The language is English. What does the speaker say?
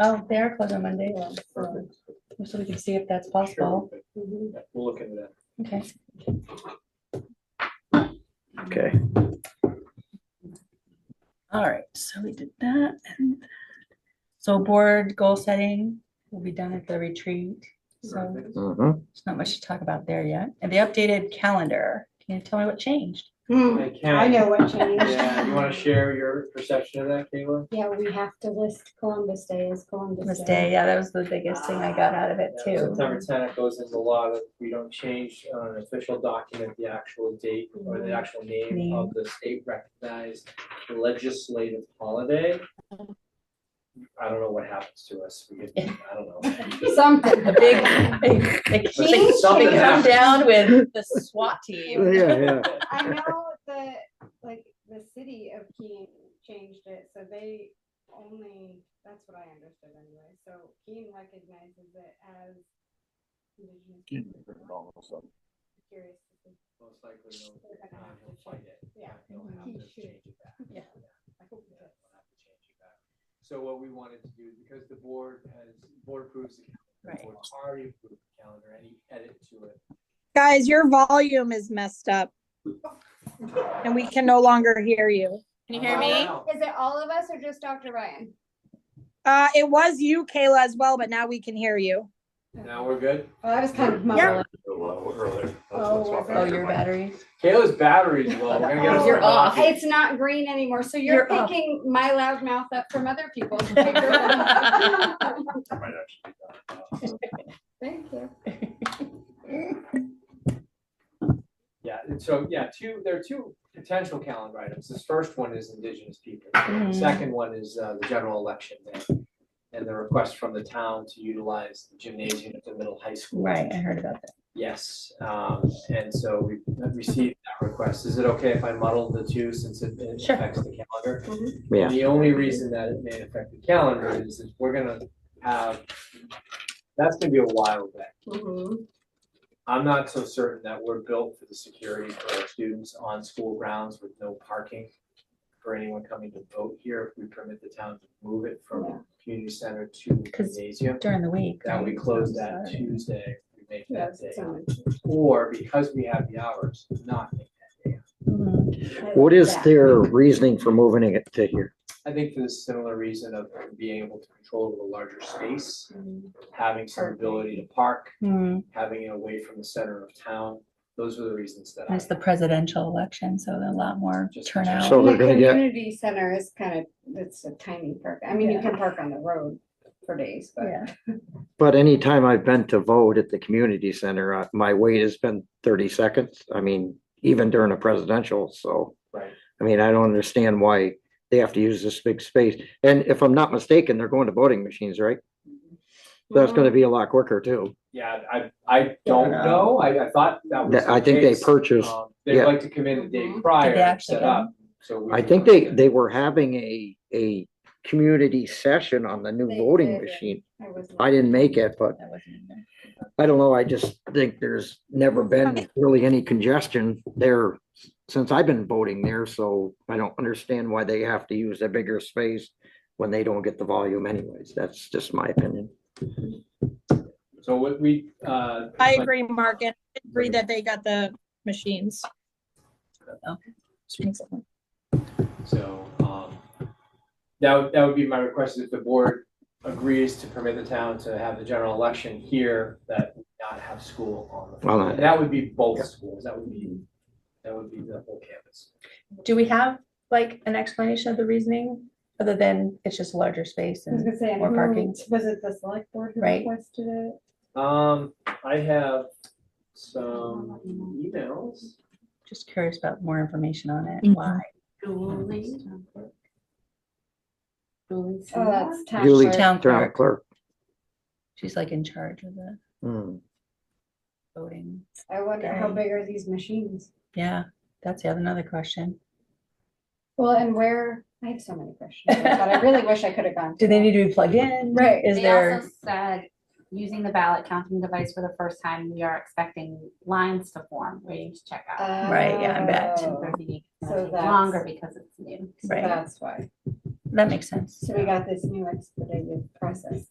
Oh, they are closed on Monday, so Perfect. so we can see if that's possible. Yeah, We'll look into that. Okay. Okay, All right, so we did that. and that. So board goal setting will be done at the retreat. So mhm. there's not much to talk about there yet. And the updated calendar, can you tell me what changed? Hmm, I I can, know what changed. yeah, you wanna share your perception of that, Kayla? Yeah, we have to list Columbus Day as Columbus This Day. day, yeah, that was the biggest thing I got out of it Yeah, too. September tenth goes into law that we don't change on an official document, the actual date or the actual name of the state recognized legislative holiday. I don't know what happens to us, we, get- I don't know. Something. The big, they- they, they Something come happened. down with the SWAT team. Yeah, yeah. I know the, like, the city of Keene changed it, so they only, that's what I understood anyway, so Keene recognizes it as. Indigenous People. Curious to see. Most likely, they'll- They're gonna uh, have to they'll fight change it. Yeah. They'll have to change it back. Yeah. I hope it does. We'll have to change it back. So what we wanted to do, because the board has, board approves the calendar, Right. the board already approved the calendar, any edit to it. Guys, your volume is messed up. And we can no longer hear you. Can you hear Oh, me? wow. Is it all of us or just Dr. Ryan? Uh, it was you, Kayla, as well, but now we can hear you. Now we're good. Well, I was kind of mumbling. Yeah. Oh, your batteries? Kayla's battery's low. We're gonna get her. You're for a off. coffee. It's not green anymore, so you're You're up. picking my loud mouth up from other people. to figure it out. Thank you. Yeah, and so, yeah, two, there are two potential calendar items. This first one is Indigenous people. The Mhm. Second one is uh, the general election day. And the request from the town to utilize the gymnasium at the middle high school. Right, I heard about that. Yes, um, and so we have received that request. Is it okay if I muddle the two since it it Sure. Mm-hmm. affects the calendar? Yeah. The only reason that it may affect the calendar is if we're gonna have, that's gonna be a while back. I'm not so certain that we're built for the security for our students on school grounds with no parking for anyone coming to vote here. If we permit the town to move it Yeah. from community center to 'Cause- gymnasium, During the week. that we right? close that Sorry. Tuesday, we make that Yes, day. it's on. Or because we have the hours, not make that day. Mhm. What is Yeah. their reasoning for moving it to here? I think for the similar reason of being able to control the larger space, having some ability to park, Mm, having it away from the center of town. Those are the reasons that I. It's the presidential election, so there's a lot more Just- turnout. So The they're gonna get- community center is kind of, it's a tiny park. I mean, you Yeah. can park on the road for days, but. Yeah, But anytime I've been to vote at the community center, uh, my wait has been thirty seconds. I mean, even during a presidential, so. Right. I mean, I don't understand why they have to use this big space. And if I'm not mistaken, they're going to voting machines, right? That's gonna be a lot quicker too. Yeah, I, I don't Yeah. know, I, I thought that was. I the think they case. purchased, Um, They'd yeah. like to come in the day Mhm. prior Mm-hmm. Did they and actually set go? up, so. we I would think look they, at- they were having a, a community session on the new They voting did, yeah. machine. I was- I didn't make it, but that wasn't in there. I don't know, I just think there's never been really any congestion there since I've been voting there, so I don't understand why they have to use a bigger space when they don't get the volume anyways. That's just my opinion. So what we, uh. I agree, Mark, and I agree that they got the machines. So, um, that, would- that would be my request, if the board agrees to permit the town to have the general election here, that we not have school on the. Well, I- And that would be both schools, that would be, that would be the whole campus. Do we have like an explanation of the reasoning, other than it's just a larger space I was and gonna say, More who- parking. was it the select board who Right. requested it? Um, I have some emails. just curious about more information on it, Mhm. why? Oh, that's town. Julie, clerk. Town town clerk. clerk. She's like in charge of the Hmm. voting. I wonder how Dang. big are these machines? Yeah, that's the other- another question. Well, and where, I have so many questions, but I really wish I could have gone. Do they to need to be plugged in? Right. Is They there, also said, using the ballot counting device for the first time, we are expecting lines to form, waiting to check that. out. Right, yeah, I bet. Oh, Thirty days, so it'll take that's- Longer because it's new. so Right. That's why. that makes sense. So we got this new expedited process.